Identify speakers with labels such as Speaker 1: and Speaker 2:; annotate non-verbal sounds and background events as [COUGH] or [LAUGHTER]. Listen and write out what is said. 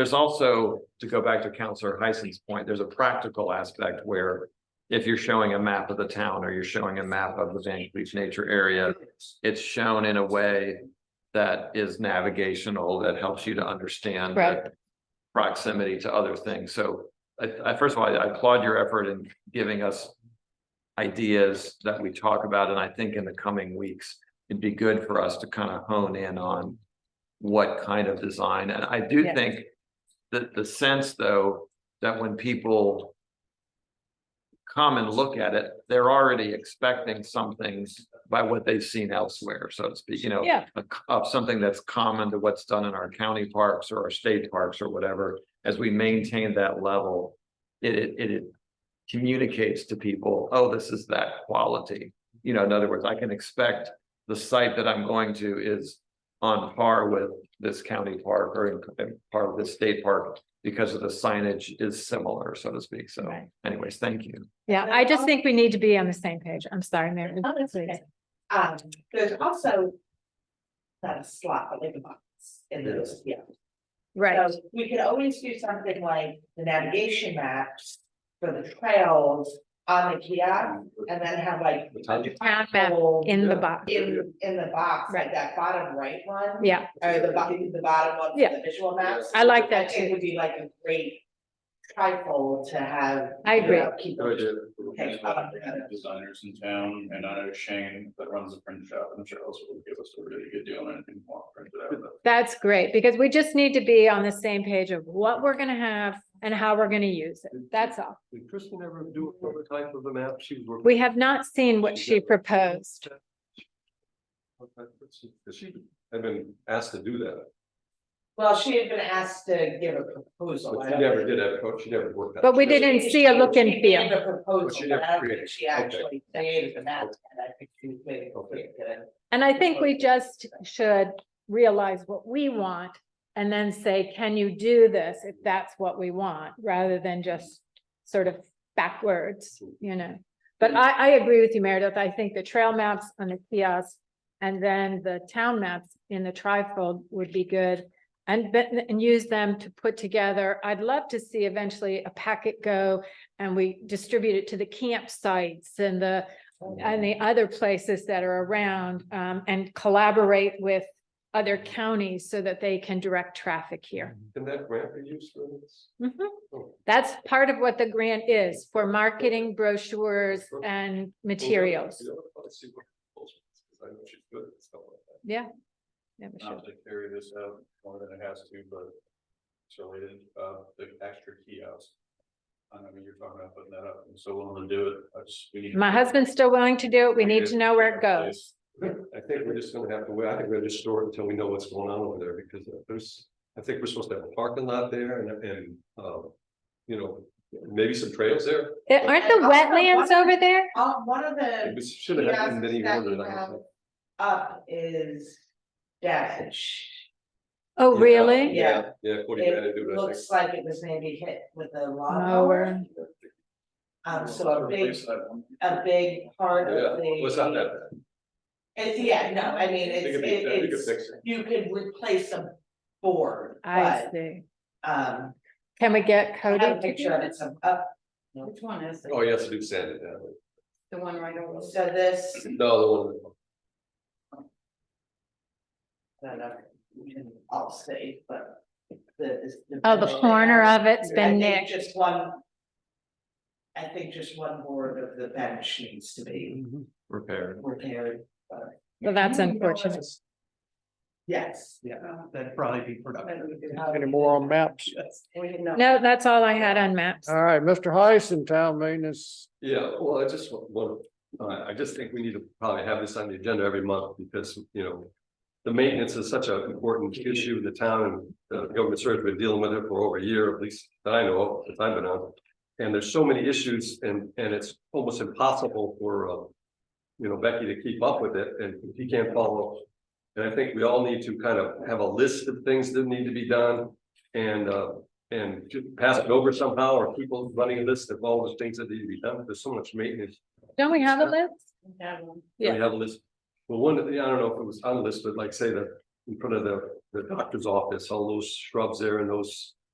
Speaker 1: There's also, to go back to Counselor Heisen's point, there's a practical aspect where if you're showing a map of the town or you're showing a map of the Van Cleef Nature Area, it's shown in a way that is navigational, that helps you to understand the
Speaker 2: Right.
Speaker 1: proximity to other things. So I, I, first of all, I applaud your effort in giving us ideas that we talk about, and I think in the coming weeks, it'd be good for us to kind of hone in on what kind of design, and I do
Speaker 2: Yeah.
Speaker 1: think that the sense, though, that when people come and look at it, they're already expecting some things by what they've seen elsewhere, so to speak, you know?
Speaker 2: Yeah.
Speaker 1: a c- Of something that's common to what's done in our county parks or our state parks or whatever, as we maintain that level, it, it, it- it communicates to people, oh, this is that quality. You know, in other words, I can expect the site that I'm going to is on par with this county park or in- in par with this state park because of the signage is similar, so to speak. So
Speaker 2: Right.
Speaker 1: anyways, thank you.
Speaker 2: Yeah, I just think we need to be on the same page. I'm sorry, Mary.
Speaker 3: Oh, that's
Speaker 2: Please.
Speaker 3: okay. Um, there's also. Not a slot, but like a box in those, yeah.
Speaker 2: Right,
Speaker 3: So We could always do something like the navigation maps for the trails on the kiosk and then have like.
Speaker 2: Town map in the box.
Speaker 3: In, in the box, like
Speaker 2: Right.
Speaker 3: that bottom right one,
Speaker 2: Yeah,
Speaker 3: or the bottom, the bottom one, for
Speaker 2: Yeah.
Speaker 3: the visual maps.
Speaker 2: I like that
Speaker 3: It
Speaker 2: too.
Speaker 3: would be like a great trifold to have.
Speaker 2: I
Speaker 3: you
Speaker 2: agree.
Speaker 3: know, keep- Okay, uh,
Speaker 4: Designers in town and I know Shane that runs a print shop, I'm sure also will give us a really good deal on anything. more printed out, but
Speaker 2: that's great because we just need to be on the same page of what we're gonna have and how we're gonna use it. That's all.
Speaker 5: Did Kristen ever do a prototype of the map she was working?
Speaker 2: We have not seen what she proposed.
Speaker 5: Because she had been asked to do that.
Speaker 3: Well, she had been asked to give a proposal.
Speaker 5: But
Speaker 3: I
Speaker 5: she
Speaker 3: don't
Speaker 5: never
Speaker 3: think-
Speaker 5: did have, a- she never worked. on it.
Speaker 2: But we
Speaker 5: She just-
Speaker 2: didn't see a look and
Speaker 3: She gave
Speaker 2: feel.
Speaker 3: a proposal, but
Speaker 5: She never
Speaker 3: I don't
Speaker 5: created
Speaker 3: think she
Speaker 5: it. Okay.
Speaker 3: actually created the map, and I think she was waiting for
Speaker 5: Okay.
Speaker 3: it to-
Speaker 2: And I think we just should realize what we want and then say, can you do this if that's what we want, rather than just sort of backwards, you know? But I, I agree with you, Meredith. I think the trail maps on the kiosk and then the town maps in the trifold would be good. And, but- and use them to put together. I'd love to see eventually a packet go and we distribute it to the campsites and the and the other places that are around, um, and collaborate with other counties so that they can direct traffic here.
Speaker 5: Can that grant be used for this?
Speaker 2: Mhm.
Speaker 5: Oh.
Speaker 2: That's part of what the grant is for marketing brochures and materials.
Speaker 5: Let's see what. proposals, 'cause I know she's good at stuff like that.
Speaker 2: Yeah, we should.
Speaker 4: Not to carry this out more than it has to, but it's related, uh, the extra kiosk. I know you're talking about putting that up, and so willing to do it, I just, we need. to-
Speaker 2: My husband's still willing to do it. We need to know where it goes.
Speaker 5: I think we're just gonna have to wait. I think we're just store it until we know what's going on over there because there's, I think we're supposed to have a parking lot there and, and, um, you know, maybe some trails there.
Speaker 2: Eh, Aren't the wetlands over there?
Speaker 3: Uh, one of
Speaker 5: It
Speaker 3: the
Speaker 5: was- should have happened in any
Speaker 3: kiosks that
Speaker 5: order.
Speaker 3: you
Speaker 5: I
Speaker 3: have
Speaker 5: don't
Speaker 3: up is damage.
Speaker 2: Oh,
Speaker 5: think.
Speaker 2: really?
Speaker 3: Yeah.
Speaker 5: Yeah, according to
Speaker 3: It
Speaker 5: attitude, I think.
Speaker 3: looks like it was maybe hit with a
Speaker 2: Mower.
Speaker 3: lawnmower. Um, so a big, uh,
Speaker 4: Replace that one.
Speaker 3: a big part
Speaker 5: Yeah,
Speaker 3: of the.
Speaker 5: was not that bad.
Speaker 3: It's, yeah, no, I mean,
Speaker 5: They
Speaker 3: it's,
Speaker 5: could be-
Speaker 3: it-
Speaker 5: they could
Speaker 3: it's,
Speaker 5: fix it.
Speaker 3: you could replace a board,
Speaker 2: I
Speaker 3: but,
Speaker 2: see.
Speaker 3: um,
Speaker 2: Can we get
Speaker 3: I have a
Speaker 2: Cody? to do
Speaker 3: picture of
Speaker 2: that?
Speaker 3: it, uh, some up.
Speaker 6: Which one is it?
Speaker 5: Oh, yes, do sand it down.
Speaker 6: The one right over.
Speaker 3: So this,
Speaker 5: No, the one,
Speaker 3: I don't know, we can all see, but the. is
Speaker 2: Oh, the corner of it's
Speaker 3: I
Speaker 2: been
Speaker 3: think
Speaker 2: nicked.
Speaker 3: Just one. I think just one board of the bench needs to be
Speaker 1: Repair.
Speaker 7: Mm-hmm.
Speaker 3: repaired,
Speaker 2: Well, that's
Speaker 6: Mm-hmm.
Speaker 7: You know,
Speaker 2: unfortunate.
Speaker 7: that's-
Speaker 3: yes. Um,
Speaker 7: Yeah, that'd probably be productive.
Speaker 3: Any
Speaker 7: Any more
Speaker 3: [LAUGHS]
Speaker 7: on maps?
Speaker 2: No, that's all I had on maps.
Speaker 7: All right, Mr. Heiss in town maintenance.
Speaker 5: yeah, well, I just wa- want, uh, I, I just think we need to probably have this on the agenda every month because, you know. The maintenance is such an important issue in the town and the government service been dealing with it for over a year, at least that I know of, since I've been on. And there's so many issues and, and it's almost impossible for, uh. You know, Becky to keep up with it and he can't follow. And I think we all need to kind of have a list of things that need to be done and, uh, and ju- pass it over somehow, or people running a list of all the things that need to be done, there's so much maintenance.
Speaker 2: Don't we have a list?
Speaker 5: We
Speaker 2: Yeah.
Speaker 5: have a list, well, one of the, I don't know if it was unlisted, like say the, in front of the, the doctor's office, all those shrubs there and those